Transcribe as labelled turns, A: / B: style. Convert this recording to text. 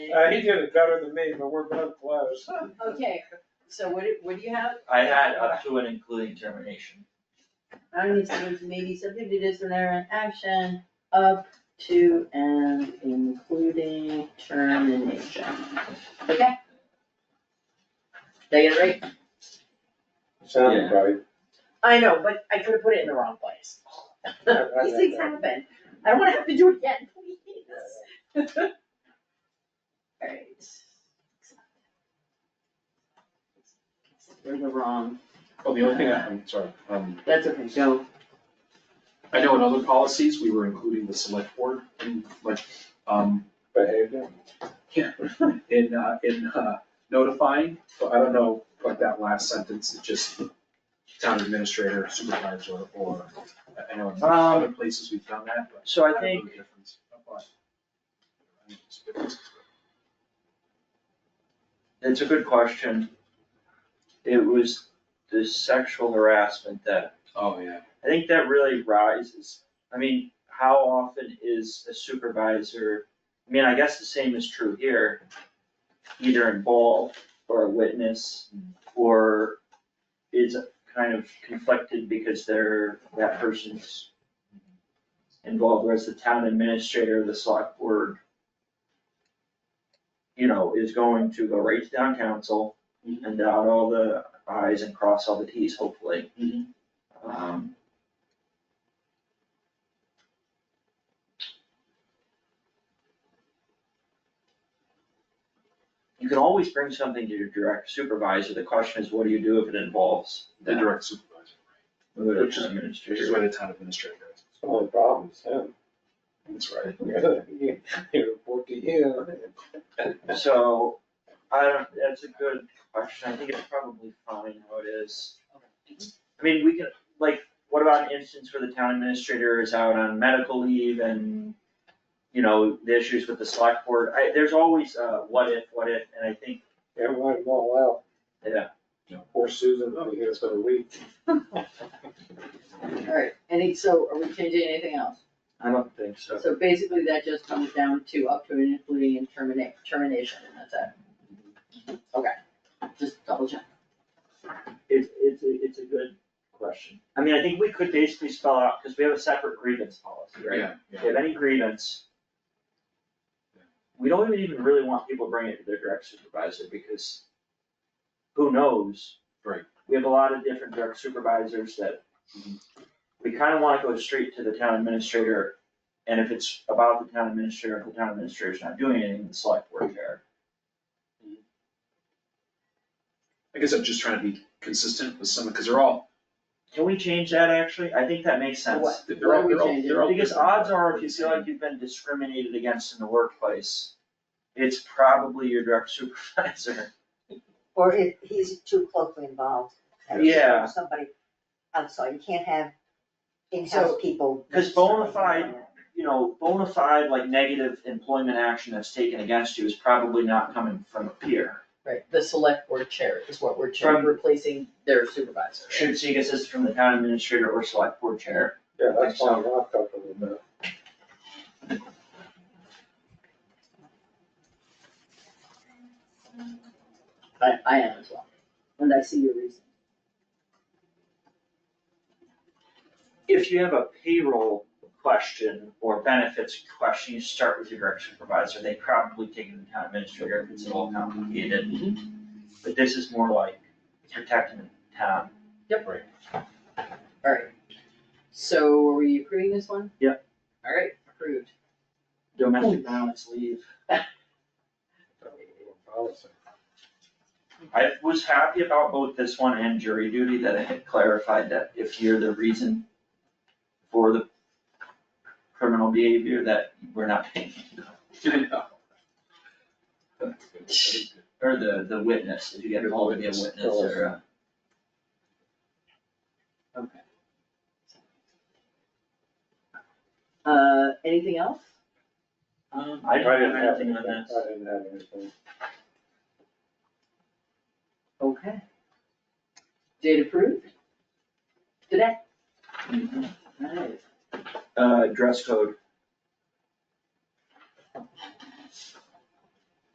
A: Uh, he did it better than me, but we're both close.
B: Okay, so what, do- what do you have?
C: I had up to and including termination.
B: I don't need to maybe subjected is an error in action up to and including termination. Okay? They get it right?
A: Sounded right.
B: I know, but I could have put it in the wrong place. These things happen. I don't wanna have to do it again, please. Alright. We're the wrong,
D: Well, the only thing I, I'm sorry, um,
B: that's okay, go.
D: I know in other policies, we were including the select board in like, um,
A: Behavior.
D: in, uh, in, uh, notifying, but I don't know what that last sentence is just town administrator, supervisor, or, I- I know in other places we've done that, but.
C: Um, So I
D: don't know
C: think-
D: the difference. But- I think it's different.
C: It's a good question. It was the sexual harassment that,
D: Oh, yeah.
C: I think that really rises. I mean, how often is a supervisor, I mean, I guess the same is true here. Either involved or a witness, or is kind of conflicted because they're, that person's involved, whereas the town administrator, the select board, you know, is going to go right to town council
D: Mm-hmm.
C: and dot all the i's and cross all the t's, hopefully.
D: Mhm.
C: Um, You can always bring something to your direct supervisor, the question is, what do you do if it involves
D: The
C: them?
D: direct supervisor,
C: Whether it's
D: Which is- which
C: administrator.
D: is where the town administrator is.
A: It's only problem is him.
D: That's right.
A: You you report to you.
C: So, I don't, that's a good question, I think it's probably fine how it is. I mean, we can, like, what about an instance where the town administrator is out on medical leave and, you know, the issues with the select board, I, there's always, uh, what if, what if, and I think,
A: Yeah, let them all
C: yeah.
A: out. Poor Susan, we get us for a week.
B: Alright, any, so are we changing anything else?
C: I don't think
B: So basically, that just comes down to up to and including and terminate, termination, and that's it. Okay, just double check.
C: It's, it's, a- it's a good question. I mean, I think we could basically spell out, cause we have a separate grievance policy, right?
D: Yeah,
C: If
D: yeah.
C: you have any grievance, we don't even- even really want people bringing it to their direct supervisor, because who knows?
D: Right.
C: We have a lot of different direct supervisors that we kinda wanna go straight to the town administrator, and if it's about the town administrator, if the town administrator's not doing anything, the select board care.
D: I guess I'm just trying to be consistent with some, because they're all,
C: Can we change that actually? I think that makes sense.
B: What?
D: they're all,
B: Why we
D: they're all,
B: change it?
D: they're all.
C: Because
D: different.
C: odds are, if you feel like you've been discriminated against in the workplace, it's probably your direct supervisor.
E: Or if he's too closely involved. and it's
C: Yeah.
E: Somebody, I'm sorry, you can't have in-house people.
C: 'cause bona fide- You know, bona fide, like negative employment action that's taken against you is probably not coming from a peer.
B: Right, the select board chair is what we're
C: changing,
B: replacing their supervisor.
C: Should seek assistance from the town administrator or select board chair.
A: Yeah, that's why I'm not comfortable with that.
B: I, I am as well, and I see your reason.
C: If you have a payroll question or benefits question, you start with your direct supervisor. They probably take it to the town administrator if it's at all complicated. But this is more like protecting the town.
B: Alright, so are we approving this one?
C: Yep.
B: Alright, approved.
C: Domestic violence leave.
A: Policy.
C: I was happy about both this one and jury duty that it had clarified that if you're the reason for the criminal behavior, that we're not paying, or the, the witness, if you get called to be a witness or uh, a.
B: Okay. Uh, anything else?
C: Um, I don't have anything on this.
A: I didn't have anything.
B: Okay. Date approved? Today? Alright.
C: Uh, dress code,